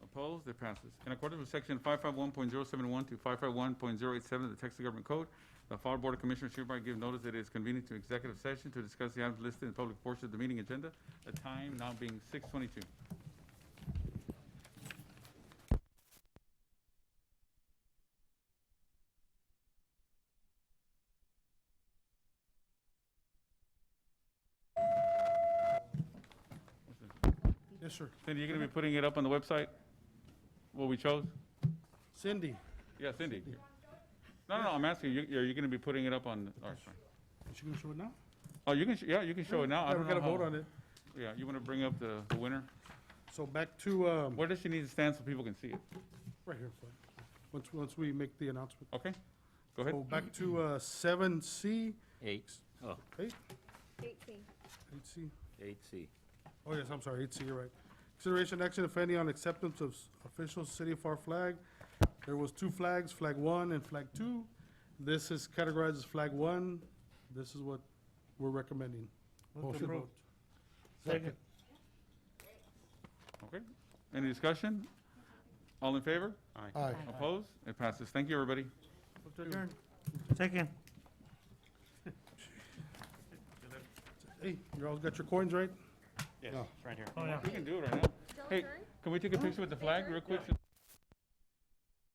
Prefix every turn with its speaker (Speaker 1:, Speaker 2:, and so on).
Speaker 1: Opposed? It passes. In accordance with section 551.071 to 551.087 of the Texas Government Code, the Florida Board of Commissioners hereby give notice that it is convening to executive session to discuss the items listed in public portion of the meeting agenda, the time now being 6:22.
Speaker 2: Yes, sir.
Speaker 1: Cindy, you're going to be putting it up on the website, what we chose?
Speaker 2: Cindy,
Speaker 1: Yeah, Cindy. No, no, no, I'm asking, you- are you going to be putting it up on, oh, sorry.
Speaker 2: is she gonna show it now?
Speaker 1: Oh, you can, sh- yeah, you can show it now. I
Speaker 2: Yeah,
Speaker 1: don't
Speaker 2: we gotta
Speaker 1: know how-
Speaker 2: vote on it.
Speaker 1: Yeah, you want to bring up the the winner?
Speaker 2: So back to, um,
Speaker 1: Where does she need to stand so people can see it?
Speaker 2: right here, Fred. once, once we make the announcement.
Speaker 1: Okay, go
Speaker 2: So
Speaker 1: ahead.
Speaker 2: back to, uh, seven C,
Speaker 3: Eight, oh,
Speaker 2: eight,
Speaker 4: Eighteen.
Speaker 2: eight C.
Speaker 3: eight C.
Speaker 2: Oh, yes, I'm sorry, eight C, you're right. Consideration action, if any, on acceptance of s- official City of FAR flag. There was two flags, Flag One and Flag Two. This is categorized as Flag One. This is what we're recommending. Motion vote.
Speaker 3: Second.
Speaker 1: Okay, any discussion? All in favor?
Speaker 2: Aye.
Speaker 1: Opposed? It passes. Thank you, everybody.
Speaker 3: Second.
Speaker 2: Hey, you all got your coins, right?
Speaker 5: Yes,
Speaker 2: No.
Speaker 5: right here.
Speaker 1: We can do it right now. Hey, can we take a picture with the flag real quick? so-